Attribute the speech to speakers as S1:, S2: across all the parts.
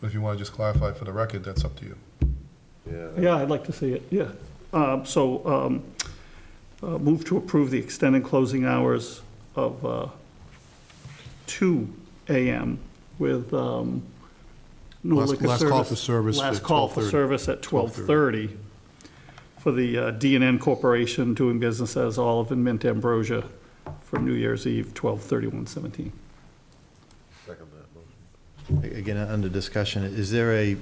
S1: But if you want to just clarify for the record, that's up to you.
S2: Yeah, I'd like to see it, yeah. Um, So um, uh, move to approve the extended closing hours of uh, 2 AM with um, no
S1: Last-
S2: liquor
S1: last
S2: service.
S1: call for service at
S2: Last call for
S1: 12:30.
S2: service at 12:30 for the uh, d and N Corporation doing business as Olive and Mint Ambrosia for New Year's Eve, 12/31/17.
S3: Again, under discussion, is there a,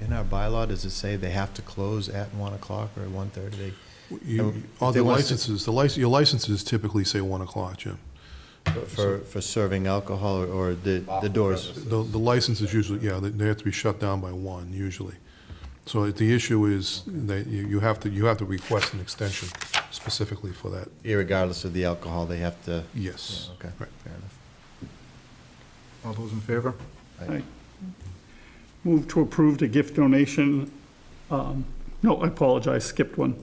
S3: in our bylaw, does it say they have to close at 1 o'clock or 1:30? They-
S1: You-
S3: Um, if
S1: On
S3: they
S1: the
S3: wanna s-
S1: licenses, the license, your licenses typically say 1 o'clock, Jim.
S3: For, for serving alcohol or- or the, the doors?
S1: The, the license is usually, yeah, they- they have to be shut down by 1 usually. So the issue is that you you have to, you have to request an extension specifically for that,
S3: Irregardless of the alcohol, they have to,
S1: yes.
S3: okay,
S1: Right.
S3: fair enough.
S4: All those in favor?
S2: Aye. Move to approve the gift donation, um, no, I apologize, skipped one.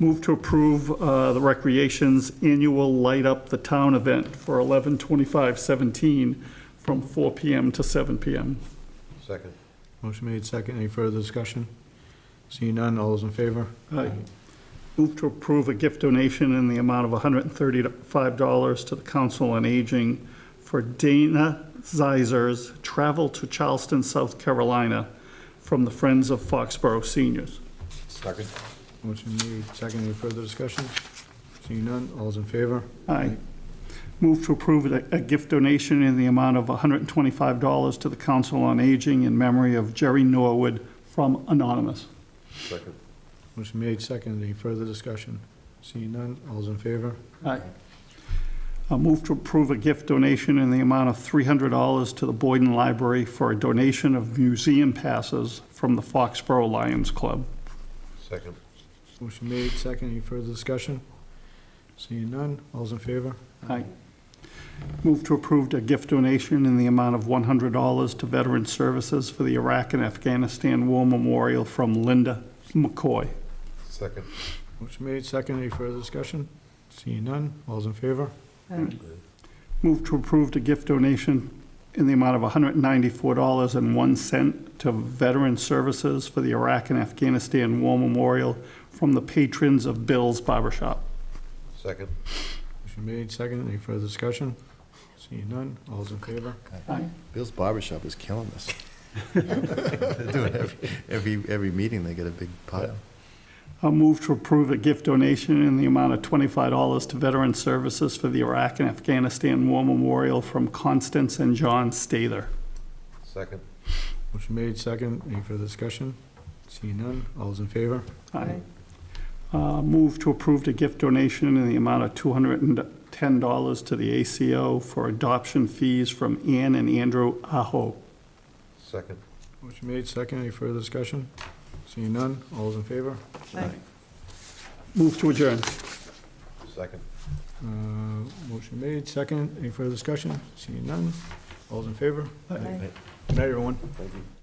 S2: Move to approve uh, the Recreation's annual Light Up the Town event for 11/25/17 from 4 PM to 7 PM.
S3: Second.
S4: Motion made second. Any further discussion? Seeing none, all those in favor?
S2: Aye. Move to approve a gift donation in the amount of $135 to the Council on Aging for Dana Zeisers travel to Charleston, South Carolina from the Friends of Foxborough Seniors.
S3: Second.
S4: Motion made second. Any further discussion? Seeing none, all those in favor?
S2: Aye. Move to approve a a gift donation in the amount of $125 to the Council on Aging in memory of Jerry Norwood from Anonymous.
S3: Second.
S4: Motion made second. Any further discussion? Seeing none, all those in favor?
S2: Aye. A move to approve a gift donation in the amount of $300 to the Boyden Library for a donation of museum passes from the Foxborough Lions Club.
S3: Second.
S4: Motion made second. Any further discussion? Seeing none, all those in favor?
S2: Aye. Move to approve a gift donation in the amount of $100 to Veteran Services for the Iraq and Afghanistan War Memorial from Linda McCoy.
S3: Second.
S4: Motion made second. Any further discussion? Seeing none, all those in favor?
S2: Move to approve a gift donation in the amount of $194.01 to Veteran Services for the Iraq and Afghanistan War Memorial from the patrons of Bill's Barbershop.
S3: Second.
S4: Motion made second. Any further discussion? Seeing none, all those in favor?
S3: Bill's Barbershop is killing us. They're doing every, every, every meeting, they get a big pile.
S2: I'll move to approve a gift donation in the amount of $25 to Veteran Services for the Iraq and Afghanistan War Memorial from Constance and John Stather.
S3: Second.
S4: Motion made second. Any further discussion? Seeing none, all those in favor?
S2: Aye. Uh, Move to approve a gift donation in the amount of $210 to the ACO for adoption fees from Ann and Andrew Aho.
S3: Second.
S4: Motion made second. Any further discussion? Seeing none, all those in favor?
S2: Move to adjourn.
S3: Second.
S4: Uh, Motion made second. Any further discussion? Seeing none, all those in favor? Good night, everyone.
S3: Thank you.